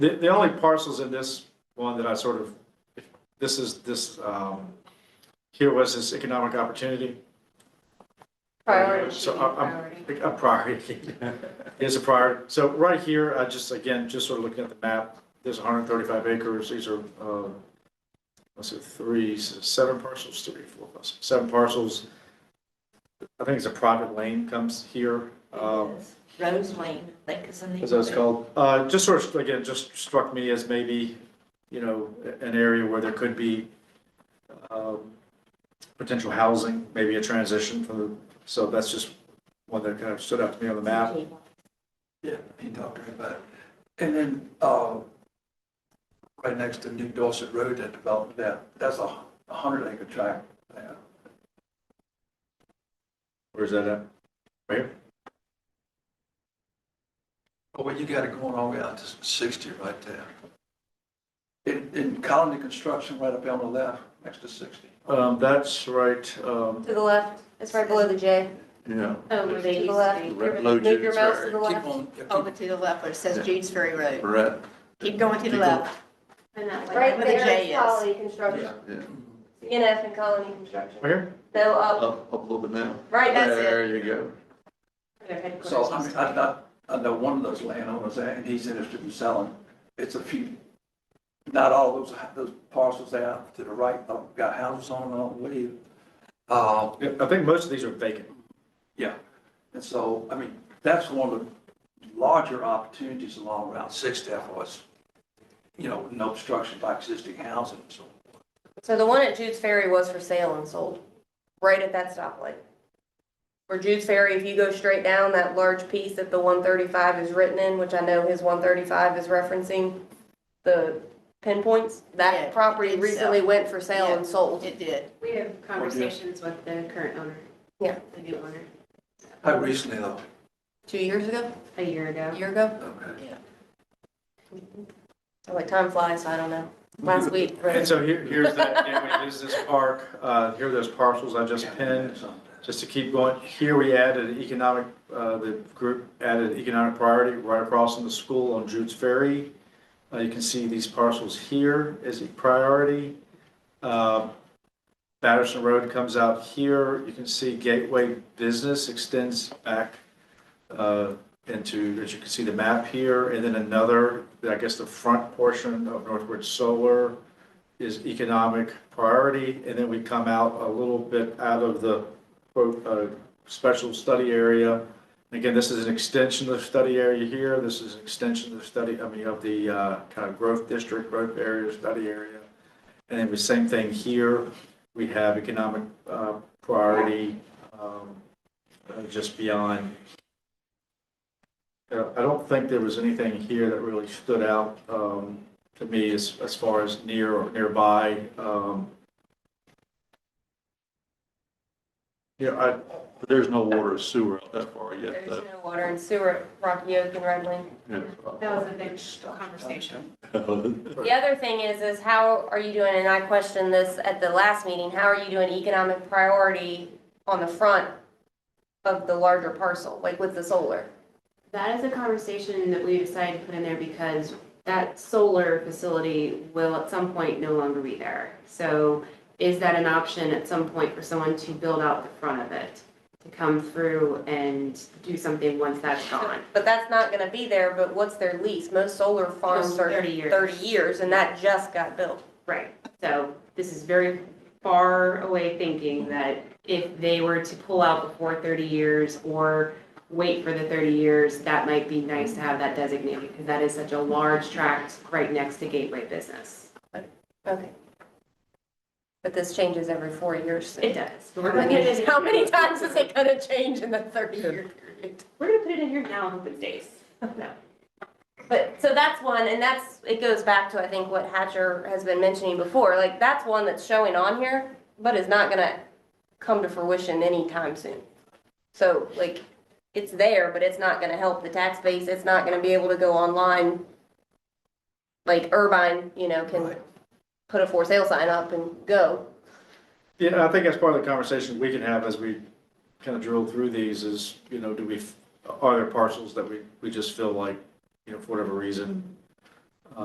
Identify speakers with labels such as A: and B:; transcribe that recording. A: The, the only parcels in this one that I sort of, this is, this, um, here was this economic opportunity.
B: Priority should
A: So uh, um,
B: be
A: I- I'm-
B: priority.
A: A priority. It's a priority. So right here, I just, again, just sort of looking at the map, there's 135 acres. These are, uh, let's see, three, seven parcels, three, four, five, six, seven parcels. I think it's a private lane comes here. um,
B: Rose Lane, I think is in the.
A: As I was called, uh, just sort of, again, just struck me as maybe, you know, an area where there could be, um, potential housing, maybe a transition from the, so that's just one that kind of stood out to me on the map.
C: Yeah, he talked to me about it. And then, uh, right next to New Dorset Road, that development there, that's a hu- a hundred acre tract there.
A: Where's that at? Right here?
C: But what Oh, you got it going all the way out to sixty right there. In, in colony construction right up there on the left, next to sixty.
A: Um, that's right, um,
B: To the left, it's right below the J,
A: yeah.
D: Oh, where
B: to
D: they
B: the
D: used
B: left.
D: to
B: Move your mouse to the
C: Keep
B: left, Oh,
C: on, yeah,
D: be. Over
C: keep,
D: to the left, where it says Jude's Ferry Road.
C: right,
D: Keep going to the
C: Keep going.
D: left. And that way,
E: Right
D: where the
E: there
D: J
E: is
D: is.
E: Colony Construction,
F: Yeah,
E: CNF and Colony Construction.
A: Right here?
E: No, up,
F: up, up a little bit now.
E: right, that's it.
F: There you go.
E: Their headquarters
C: so I
E: is-
C: mean, I, I, I know one of those landowners there, and he's interested in selling. It's a few, not all those, those parcels there to the right, uh, got houses on, them, I believe. Uh,
A: Yeah, I think most of these are vacant.
C: Yeah, and so, I mean, that's one of the larger opportunities along Route 6 there for us. You know, no obstruction by existing housing, so.
E: So the one at Jude's Ferry was for sale and sold, right at that stoplight. For Jude's Ferry, if you go straight down, that large piece that the one thirty-five is written in, which I know his one thirty-five is referencing, the pinpoints,
D: Yeah, uh,
E: that
D: it
E: property
D: did sell.
E: recently went for sale and sold.
D: It did.
G: We have conversations with the current owner.
E: Yeah.
G: The new owner,
C: How recently though?
E: Two years ago,
G: a year
E: a
G: ago.
E: year ago?
C: Okay.
E: Like, time flies, I don't know. Last week,
A: And
E: right?
A: so here, here's that gateway business park, uh, here are those parcels I just pinned. Just to keep going, here we added economic, uh, the group added economic priority right across from the school on Jude's Ferry. Uh, You can see these parcels here is a priority. Uh, Patterson Road comes out here. You can see Gateway Business extends back uh, into, as you can see the map here, and then another, I guess the front portion of Northwood Solar is economic priority, and then we come out a little bit out of the quote, uh, special study area. Again, this is an extension of the study area here, this is an extension of the study, I mean, of the uh, kind of growth district, growth area, study area. And then the same thing here, we have economic uh, priority um, uh, just beyond. Uh, I don't think there was anything here that really stood out um, to me as, as far as near or nearby. um, You know, I,
F: But there's no water or sewer out that far yet,
E: There's
F: though.
E: no water and sewer at Rocky Oak and Red Wing.
G: That was a big conversation.
F: Yeah.
E: The other thing is, is how are you doing, and I questioned this at the last meeting, how are you doing economic priority on the front of the larger parcel, like with the solar?
G: That is a conversation that we decided to put in there because that solar facility will at some point no longer be there. So is that an option at some point for someone to build out the front of it? To come through and do something once that's gone?
E: But that's not gonna be there, but what's their lease? Most solar farms
G: Most
E: are
G: 30 years.
E: thirty years, and that just got built.
G: Right, so this is very far away thinking that if they were to pull out before thirty years or wait for the thirty years, that might be nice to have that designated, because that is such a large tract right next to Gateway Business.
E: Okay. But this changes every four years. so-
G: It does. We're
E: How
G: gonna put it
E: many-
G: in-
E: How many times is it gonna change in the thirty-year period?
G: We're gonna put it in here now and hope it stays.
E: But, so that's one, and that's, it goes back to, I think, what Hatcher has been mentioning before, like, that's one that's showing on here, but is not gonna come to fruition anytime soon. So, like, it's there, but it's not gonna help the tax base, it's not gonna be able to go online. Like Irvine, you know, can
C: Right.
E: put a for sale sign up and go.
A: Yeah, I think that's part of the conversation we can have as we kind of drill through these is, you know, do we, are there parcels that we, we just feel like, you know, for whatever reason,